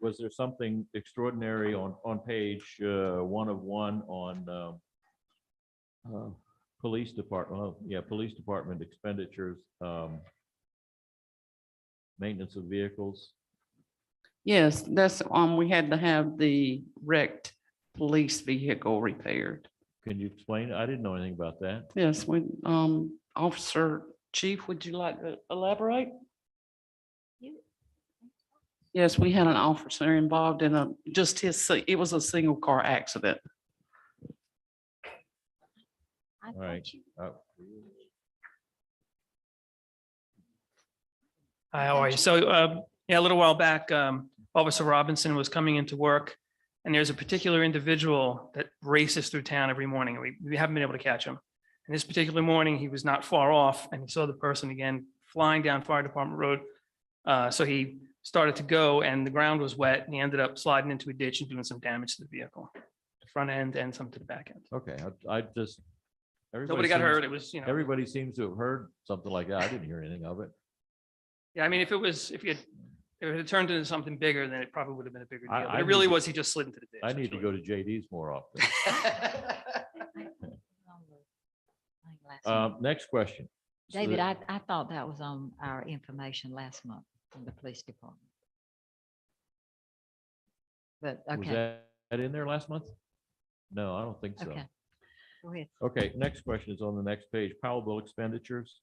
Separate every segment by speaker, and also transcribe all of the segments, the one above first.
Speaker 1: was there something extraordinary on, on page, uh, one of one on, um, uh, police department, oh, yeah, police department expenditures, um, maintenance of vehicles?
Speaker 2: Yes, that's, um, we had to have the wrecked police vehicle repaired.
Speaker 1: Can you explain? I didn't know anything about that.
Speaker 2: Yes, when, um, Officer Chief, would you like to elaborate? Yes, we had an officer involved in a, just his, si- it was a single car accident.
Speaker 3: I
Speaker 1: All right.
Speaker 3: thought you-
Speaker 1: Uh,
Speaker 4: Hi, how are you? So, um, yeah, a little while back, um, Officer Robinson was coming into work and there's a particular individual that races through town every morning. We, we haven't been able to catch him. And this particular morning, he was not far off and he saw the person again flying down Fire Department Road. Uh, so he started to go and the ground was wet and he ended up sliding into a ditch and doing some damage to the vehicle. The front end and some to the back end.
Speaker 1: Okay, I, I just. everybody
Speaker 4: Nobody got
Speaker 1: seems-
Speaker 4: hurt. It was, you know,
Speaker 1: Everybody seems to have heard something like that. I didn't hear anything of it.
Speaker 4: yeah, I mean, if it was, if he had, if it had turned into something bigger, then it probably would have been a bigger
Speaker 1: I-
Speaker 4: deal.
Speaker 1: I
Speaker 4: But it really
Speaker 1: need to-
Speaker 4: was, he just slid into the ditch.
Speaker 1: I need to
Speaker 4: That's
Speaker 1: go
Speaker 4: really-
Speaker 1: to JD's more often.
Speaker 3: Like last month.
Speaker 1: Um, next question. So
Speaker 3: David,
Speaker 1: the-
Speaker 3: I, I thought that was on our information last month from the police department. But,
Speaker 1: Was
Speaker 3: okay,
Speaker 1: that that in there last month? No, I don't think so.
Speaker 3: okay. Go ahead.
Speaker 1: Okay, next question is on the next page, Powell bill expenditures.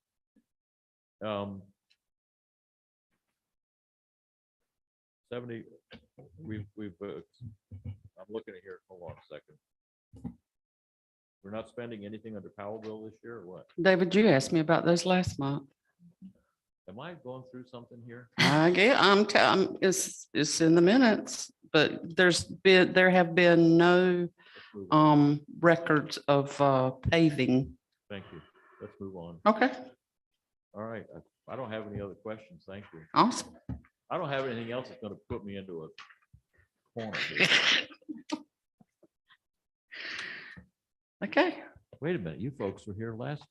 Speaker 1: Um, Seventy, we've, we've, uh, I'm looking at here, hold on a second. We're not spending anything under Powell bill this year or what?
Speaker 2: David, you asked me about those last month.
Speaker 1: Am I going through something here?
Speaker 2: I get, I'm, t- I'm, it's, it's in the minutes, but there's been, there have been no,
Speaker 1: Let's move on.
Speaker 2: um, records of, uh, paving.
Speaker 1: Thank you. Let's move on.
Speaker 2: Okay,
Speaker 1: All right, I- I don't have any other questions. Thank you.
Speaker 2: awesome.
Speaker 1: I don't have anything else that's gonna put me into a corner. here.
Speaker 2: Okay.
Speaker 1: Wait a minute, you folks were here last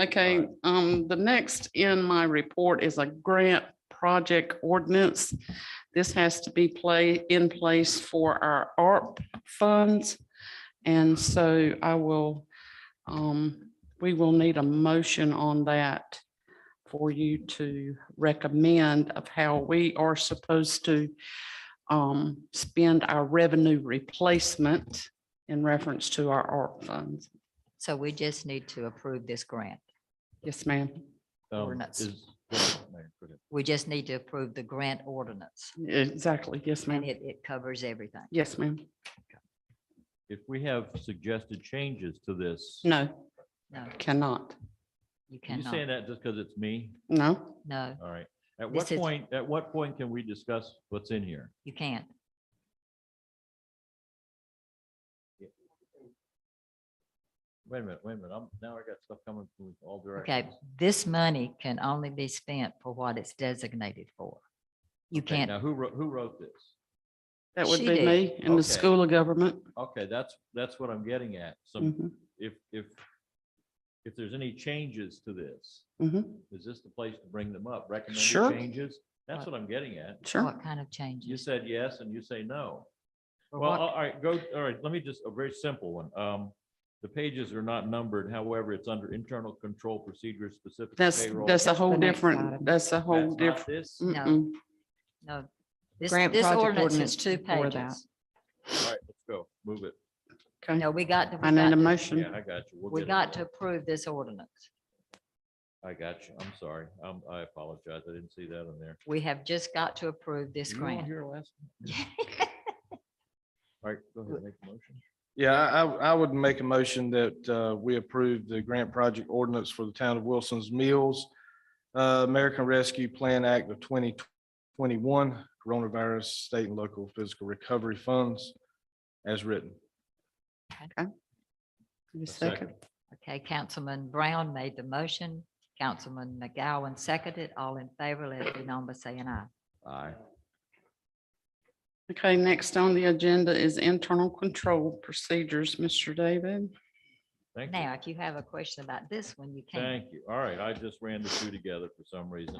Speaker 2: Okay, um, the next in my report is a grant project ordinance. This has to be play, in place for our ARP funds. And so I will, um, we will need a motion on that for you to recommend of how we are supposed to um, spend our revenue replacement in reference to our ARP funds.
Speaker 3: So we just need to approve this grant.
Speaker 2: Yes, ma'am.
Speaker 1: Um,
Speaker 3: Ordinance.
Speaker 1: is- go ahead, Mayor, go ahead.
Speaker 3: We just need to approve the grant ordinance
Speaker 2: Exactly. Yes, ma'am.
Speaker 3: and it, it covers everything.
Speaker 2: Yes, ma'am.
Speaker 1: If we have suggested changes to this, are
Speaker 2: No,
Speaker 3: No,
Speaker 2: cannot.
Speaker 3: you
Speaker 1: you saying
Speaker 3: cannot.
Speaker 1: that just because it's me?
Speaker 2: No,
Speaker 3: No,
Speaker 1: All right. At what
Speaker 3: This is-
Speaker 1: point, at what point can we discuss what's in here?
Speaker 3: you can't.
Speaker 1: Wait a minute, wait a minute. I'm, now I got stuff coming from all
Speaker 3: Okay,
Speaker 1: directions.
Speaker 3: this money can only be spent for what it's designated for. You
Speaker 1: Okay,
Speaker 3: can't,
Speaker 1: Now, who wrote, who wrote this?
Speaker 2: that would
Speaker 3: She
Speaker 2: be
Speaker 3: did.
Speaker 2: me in
Speaker 1: Okay.
Speaker 2: the School of Government.
Speaker 1: Okay, that's, that's what I'm getting at.
Speaker 3: Mm.
Speaker 1: So
Speaker 2: Mhm,
Speaker 1: if, if, if there's any changes to this,
Speaker 2: mhm.
Speaker 1: is this the place to bring them up? Recommended
Speaker 2: Sure.
Speaker 1: changes? That's what I'm getting at.
Speaker 2: Sure.
Speaker 3: what kind of
Speaker 1: You
Speaker 3: changes?
Speaker 1: said yes and you say no.
Speaker 3: Or
Speaker 1: Well,
Speaker 3: what-
Speaker 1: all all right, go, all right, let me just, a very simple one. Um, the pages are not numbered, however, it's under internal control procedures specific. to
Speaker 2: That's,
Speaker 1: payroll.
Speaker 2: that's a whole
Speaker 3: the next
Speaker 2: different,
Speaker 3: item.
Speaker 2: that's a
Speaker 1: That's
Speaker 2: whole
Speaker 1: not
Speaker 2: different. Mm.
Speaker 1: This, all
Speaker 3: No.
Speaker 2: Mm-mm.
Speaker 3: No, this,
Speaker 5: Grant
Speaker 3: this
Speaker 5: project
Speaker 3: ordinance
Speaker 5: ordinance
Speaker 3: is two
Speaker 5: before that.
Speaker 3: pages.
Speaker 1: right, let's go, move it.
Speaker 2: Okay,
Speaker 3: No, we got. to- we
Speaker 2: I need
Speaker 3: got
Speaker 2: a
Speaker 3: to-
Speaker 1: Yeah,
Speaker 2: motion.
Speaker 1: I got you. We'll
Speaker 3: We
Speaker 1: get it
Speaker 3: got to
Speaker 1: done.
Speaker 3: approve this ordinance.
Speaker 1: I got you, I'm sorry, um, I apologize, I didn't see that on there.
Speaker 3: We have just got to approve this
Speaker 1: Were you on
Speaker 3: grant.
Speaker 1: here last? All right, go ahead, make a motion.
Speaker 6: Yeah, I, I- I would make a motion that uh, we approve the grant project ordinance for the town of Wilson's Mills, uh, American Rescue Plan Act of 2021, Coronavirus State and Local Physical Recovery Funds as written.
Speaker 2: Give me a
Speaker 1: A second.
Speaker 2: Second.
Speaker 3: Okay, Councilman Brown made the motion. Councilman McGowan seconded. All in favor, let it be known by saying aye.
Speaker 1: Aye.
Speaker 2: Okay, next on the agenda is internal control procedures, Mr. David.
Speaker 1: Thank you,
Speaker 3: Now, if you have a question about this one, you can.
Speaker 1: thank you. All right, I just ran the two together for some reason.